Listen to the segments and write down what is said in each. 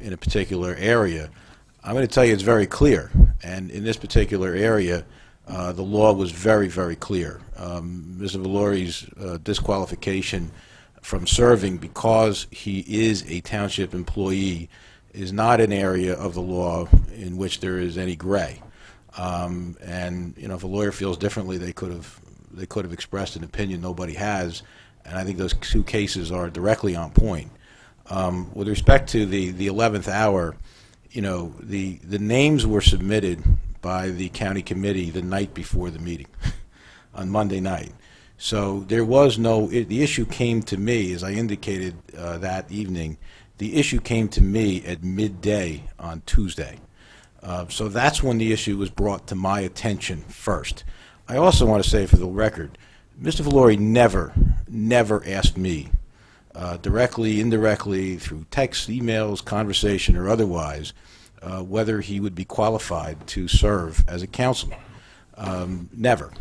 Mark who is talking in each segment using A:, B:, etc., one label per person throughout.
A: in a particular area, I'm going to tell you it's very clear. And in this particular area, uh, the law was very, very clear. Um, Mr. Valori's uh, disqualification from serving because he is a township employee is not an area of the law in which there is any gray. Um, And, you know, if a lawyer feels differently, they could have, they could have expressed an opinion nobody has, and I think those two cases are directly on point. Um, With respect to the, the 11th hour, you know, the, the names were submitted by the county committee the night before the meeting, on Monday night. So there was no, i- the issue came to me, as I indicated uh, that evening, the issue came to me at midday on Tuesday. Uh, So that's when the issue was brought to my attention first. I also want to say for the record, Mr. Valori never, never asked me uh, directly, indirectly, through text, emails, conversation, or otherwise, uh, whether he would be qualified to serve as a councilman. Um, Never.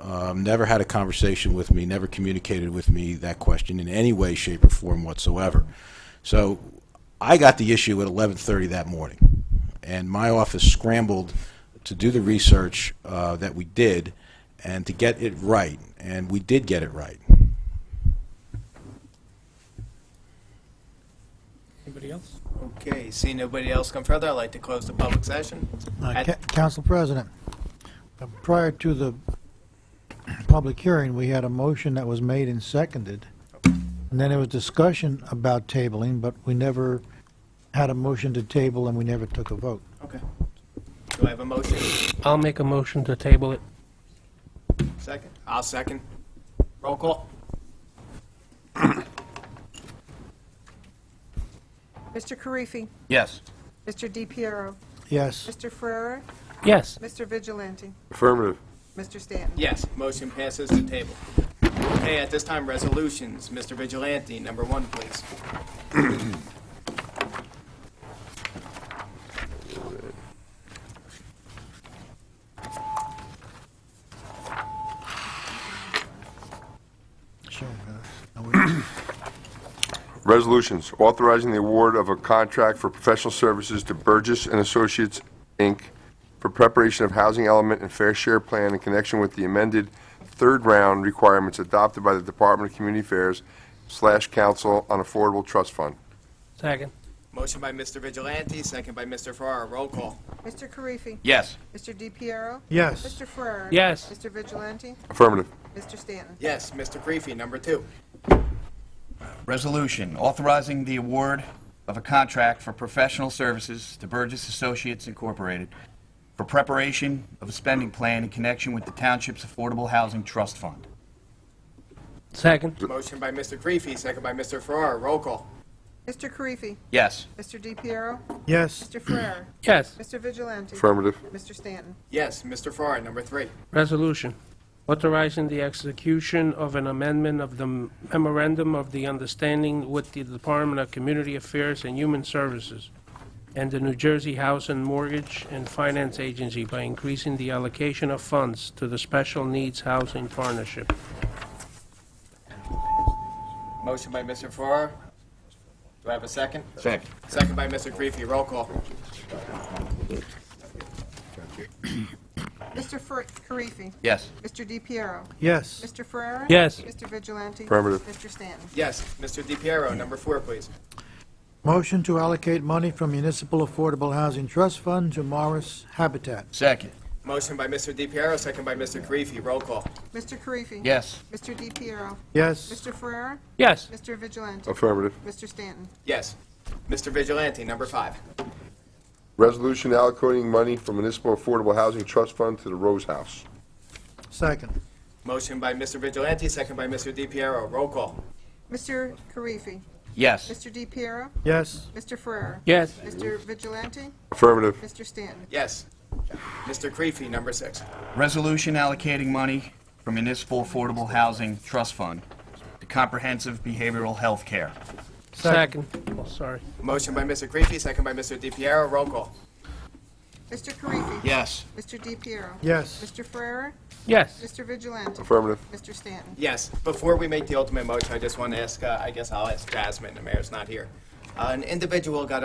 A: Um, Never had a conversation with me, never communicated with me that question in any way, shape, or form whatsoever. So I got the issue at 11:30 that morning, and my office scrambled to do the research uh, that we did and to get it right, and we did get it right.
B: Anybody else?
C: Okay, see nobody else come further, I'd like to close the public session.
D: Uh,
C: At-
D: Ca- Council President, uh, prior to the public hearing, we had a motion that was made and seconded. And then there was discussion about tabling, but we never had a motion to table and we never took a vote.
C: Okay. Do I have a motion?
B: I'll make a motion to table it.
C: Second? I'll second. Roll call?
E: Mr. Karifi.
F: Yes.
E: Mr. DePiero.
D: Yes,
E: Mr. Ferrera.
B: Yes.
E: Mr. Vigilante.
G: Affirmative.
E: Mr. Stanton.
C: Yes, motion passes to table. Okay, at this time, resolutions. Mr. Vigilante, number one, please.
D: so, uh, no, we-
G: Resolutions authorizing the award of a contract for professional services to Burgess and Associates, Inc. for preparation of housing element and fair share plan in connection with the amended third round requirements adopted by the Department of Community Affairs slash Council on Affordable Trust Fund.
B: Second.
C: Motion by Mr. Vigilante, second by Mr. Farrar. Roll call?
E: Mr. Karifi.
F: Yes.
E: Mr. DePiero.
D: yes,
E: Mr. Ferrera.
B: Yes.
E: Mr. Vigilante.
G: Affirmative.
E: Mr. Stanton.
C: Yes, Mr. Creepy, number two.
F: Resolution authorizing the award of a contract for professional services to Burgess Associates Incorporated for preparation of a spending plan in connection with the township's Affordable Housing Trust Fund.
B: Second.
C: Motion by Mr. Creepy, second by Mr. Farrar. Roll call?
E: Mr. Karifi.
F: Yes.
E: Mr. DePiero.
D: yes,
E: Mr. Ferrera.
B: Yes.
E: Mr. Vigilante.
G: Affirmative.
E: Mr. Stanton.
C: Yes, Mr. Farrar, number three.
B: Resolution authorizing the execution of an amendment of the memorandum of the understanding with the Department of Community Affairs and Human Services and the New Jersey House and Mortgage and Finance Agency by increasing the allocation of funds to the Special Needs Housing Partnership.
C: Motion by Mr. Farrar. Do I have a second?
F: Second.
C: Second by Mr. Creepy. Roll call?
E: Mr. Fer- Karifi.
F: Yes.
E: Mr. DePiero.
D: yes,
E: Mr. Ferrera.
B: Yes.
E: Mr. Vigilante.
G: Affirmative.
E: Mr. Stanton.
C: Yes, Mr. DePiero, number four, please.
D: motion to allocate money from Municipal Affordable Housing Trust Fund to Morris Habitat.
F: Second.
C: Motion by Mr. DePiero, second by Mr. Karifi. Roll call.
E: Mr. Karifi.
F: Yes.
E: Mr. DePiero.
D: Yes,
E: Mr. Ferrera.
B: Yes.
E: Mr. Vigilante.
G: Affirmative.
E: Mr. Stanton.
C: Yes. Mr. Vigilante, number five.
G: Resolution allocating money from Municipal Affordable Housing Trust Fund to the Rose House.
D: second,
C: Motion by Mr. Vigilante, second by Mr. DePiero. Roll call.
E: Mr. Karifi.
F: Yes.
E: Mr. DePiero.
D: yes,
E: Mr. Ferrer.
B: Yes.
E: Mr. Vigilante.
G: Affirmative.
E: Mr. Stanton.
C: Yes. Mr. Karifi, number six.
F: Resolution allocating money from Municipal Affordable Housing Trust Fund to comprehensive behavioral health care.
B: Second. Oh, Sorry.
C: Motion by Mr. Karifi, second by Mr. DePiero. Roll call.
E: Mr. Karifi.
F: Yes.
E: Mr. DePiero.
D: yes,
E: Mr. Ferrer.
B: Yes.
E: Mr. Vigilante.
G: Affirmative.
E: Mr. Stanton.
C: Yes, before we make the ultimate motion, I just want to ask, uh, I guess I'll ask Jasmine, the mayor's not here. Uh, An individual got up.